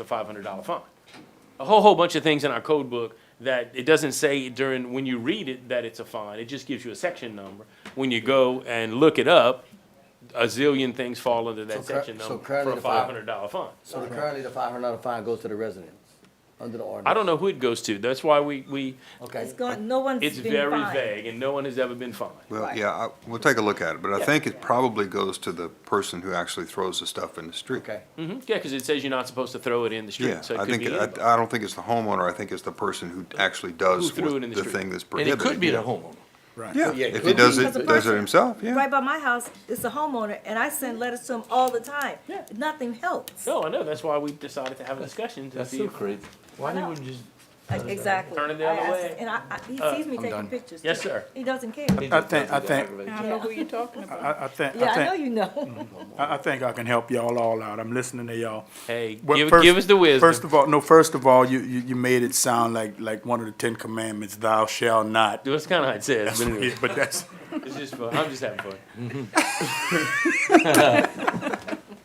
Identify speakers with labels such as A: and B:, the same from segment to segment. A: a five hundred dollar fine. A whole, whole bunch of things in our code book that it doesn't say during, when you read it, that it's a fine, it just gives you a section number. When you go and look it up, a zillion things fall under that
B: So cur-
A: section
B: so
A: number for
B: currently
A: a
B: the
A: five
B: five-
A: hundred dollar fine.
B: So the currently the five hundred dollar fine goes to the residents, under the ordinance?
A: I don't know who it goes to, that's why we, we,
B: Okay,
C: It's gone, no one's been
A: it's
C: fined.
A: very vague, and no one has ever been fined.
D: Well,
C: Right.
D: yeah, I, we'll take a look at it, but I
A: Yeah.
D: think it probably goes to the person who actually throws the stuff in the street.
B: okay,
A: hmm yeah, cause it says you're not supposed to throw it in the
D: Yeah,
A: street, so it
D: I
A: could
D: think,
A: be
D: I,
A: anybody.
D: I don't think it's the homeowner, I think it's the person who actually does
A: Who threw it in
D: with
A: the
D: the
A: street.
D: thing that's
A: And it
D: prohibited.
A: could be the homeowner.
D: Yeah,
B: Yeah, it
D: if he
B: could
D: does
B: be.
D: it,
C: Because the
D: does it
C: person-
D: himself, yeah.
C: Right by my house, it's a homeowner, and I send letters to him all the time.
A: Yeah.
C: Nothing helps.
A: No, I know, that's why we decided to have a discussion to
E: That's
A: see
E: so
A: if
E: crazy.
F: Why
C: know.
F: didn't we just?
C: Like, Exactly.
A: Turn it the
C: I
A: other
C: asked-
A: way.
C: And I, I, he
A: Uh,
C: sees me
F: I'm
C: taking
F: done.
C: pictures.
A: Yes,
C: too.
A: sher
C: He doesn't care.
F: I think- I think-
G: I know who you're talking about.
F: I, I think,
C: Yeah,
F: I
C: I know
F: think,
C: you know.
F: I, I think I can help y'all all out. I'm listening to y'all.
A: Hey,
F: Well,
A: give,
F: first-
A: give us the wisdom.
F: First of all, no, first of all, you, you, you made it sound like, like one of the Ten Commandments, thou shalt not.
A: That's kind of how it says. But anyway,
F: Yeah, But that's,
A: it's just fun. I'm just having fun.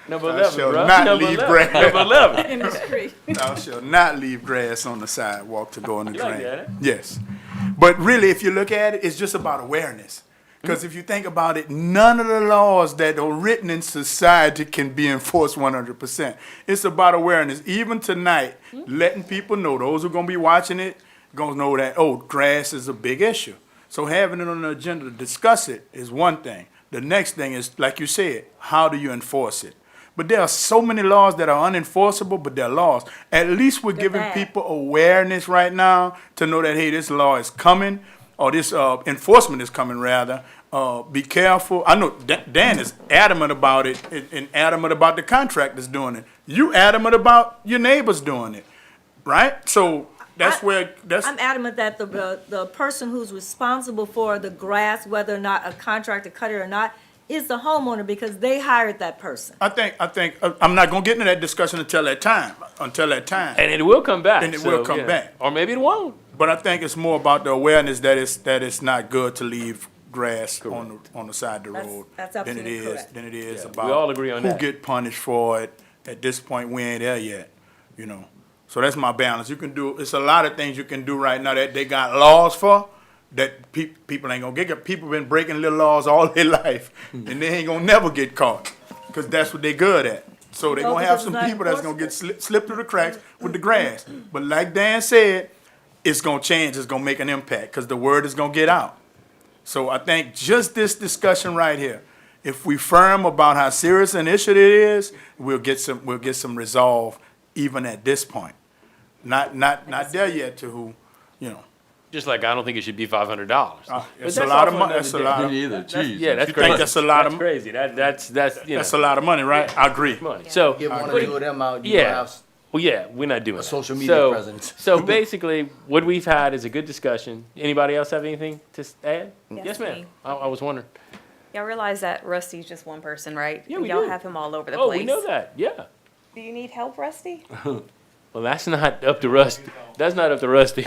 A: number
F: Thou
A: eleven,
F: shalt
A: bro.
F: not
A: number
F: leave
A: 11.
F: bread.
A: Number eleven.
G: In the street.
F: thou shalt not leave grass on the sidewalk to go in the
A: You like
F: drain.
A: that, eh?
F: Yes. But really, if you look at it, it's just about awareness. Because if you think about it, none of the laws that are written in society can be enforced 100%. It's about awareness. Even tonight, letting people know, those who are going to be watching it, going to know that, oh, grass is a big issue. So having it on the agenda to discuss it is one thing. The next thing is, like you said, how do you enforce it? But there are so many laws that are unenforceable, but they're laws. At least we're giving
C: bad.
F: people awareness right now to know that hey, this law is coming, or this uh, enforcement is coming rather. Uh, be careful. I know Da- Dan is adamant about it, and, and adamant about the contractors doing it. You adamant about your neighbors doing it, right? So that's
C: I-
F: where that's
C: I'm adamant that the- the, the person who's responsible for the grass, whether or not a contractor cut it or not, is the homeowner because they hired that person.
F: I think I think uh, I'm not gonna get into that discussion until that time. Until that time.
A: And it will come back.
F: And it
A: so,
F: will come
A: yeah.
F: back.
A: Or maybe it won't.
F: But I think it's more about the awareness that it's, that it's not good to leave grass on, the on the side of the
C: That's-
F: road.
C: that's
F: than it
C: absolutely
F: is-
C: correct.
F: Than it is
A: Yeah, we
F: about.
A: all agree on that.
F: Who get punished for it. At this point, we ain't there yet, you know? So that's my balance. You can do, it's a lot of things you can do right now that they got laws for that pe- people ain't gonna get, people been breaking little laws all their life and they ain't gonna never get caught. Cause that's what they good at. So they
C: No,
F: gonna have
C: because
F: some
C: it's not
F: people that's gonna
C: enforceable.
F: get slip, slip through the cracks with the grass. But like Dan said, it's gonna change, it's gonna make an impact, cause the word is gonna get out. So I think just this discussion right here, if we firm about how serious an issue it is, we'll get some, we'll get some resolve even at this point. Not, not, not there yet to who, you know,
A: Just like I don't think it should be five hundred dollars.
F: it's a lot of money, that's a lot of,
E: Me either, jeez.
A: Oh, Yeah, that's
F: You
A: crazy.
F: think that's a lot of
A: That's
F: mo-
A: crazy. That that's that's you
F: that's a
A: know
F: lot of money, right? I agree.
A: money. So
B: give one
A: what
B: or
A: do-
B: two of them out, you gonna
A: Yeah.
B: have s-
A: Well, yeah, we're not doing that.
B: social media
A: So-
B: presence.
A: So basically, what we've had is a good discussion. Anybody else have anything to s- add?
G: Yes,
A: Yes, ma'am.
G: me.
A: I, I was wondering.
H: Y'all realize that Rusty's just one person, right?
A: Yeah, we
H: Y'all
A: do.
H: have him all over the
A: Oh,
H: place.
A: we know that. Yeah.
H: Do you need help, Rusty?
A: Well, that's not up to Rusty. That's not up to Rusty.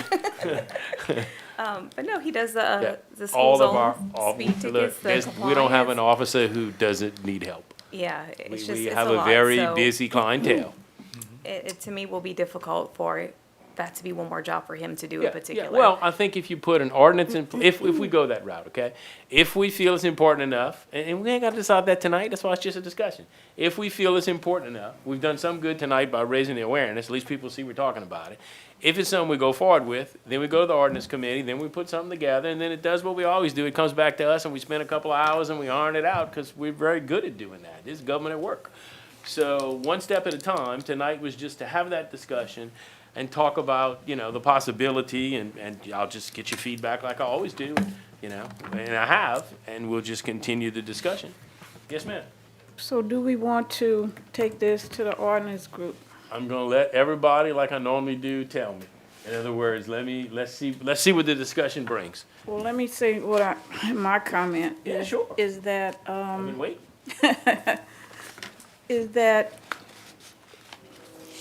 H: Um, but no, he does the uh,
A: Yeah.
H: the school
A: All
H: zone
A: of our, all,
H: speed tickets.
A: look,
H: the
A: there's- we don't have an
H: compliance.
A: officer who doesn't need help.
H: Yeah, it's
A: We,
H: just
A: we
H: it's
A: have
H: a,
A: a
H: lot,
A: very
H: so
A: busy clientele.
H: It, it to me will be difficult for that to be one more job for him to do
A: Yeah,
H: in particular.
A: Yeah. Well, I think if you put an ordinance in, pl- if, if we go that route, okay? If we feel it's important enough, and, and we ain't gotta decide that tonight, that's why it's just a discussion. If we feel it's important enough, we've done some good tonight by raising the awareness, at least people see we're talking about it. If it's something we go forward with, then we go to the ordinance committee, then we put something together, and then it does what we always do. It comes back to us and we spend a couple of hours and we iron it out, cause we're very good at doing that. This is government at work. So one step at a time, tonight was just to have that discussion and talk about, you know, the possibility and, and I'll just get your feedback like I always do, you know, and I have, and we'll just continue the discussion. Yes, ma'am.
G: So do we want to take this to the ordinance group?
A: I'm gonna let everybody, like I normally do, tell me. In other words, let me, let's see, let's see what the discussion brings.
G: Well, let me say what I, my comment.
A: Yeah,
G: is-
A: sure.
G: Is that,
A: I
G: um,
A: mean, wait,
G: is that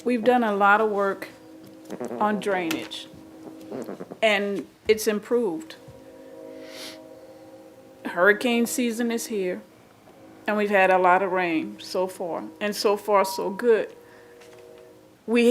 G: we've done a lot of work on drainage, and it's improved. Hurricane season is here, and we've had a lot of rain so far, and so far, so good.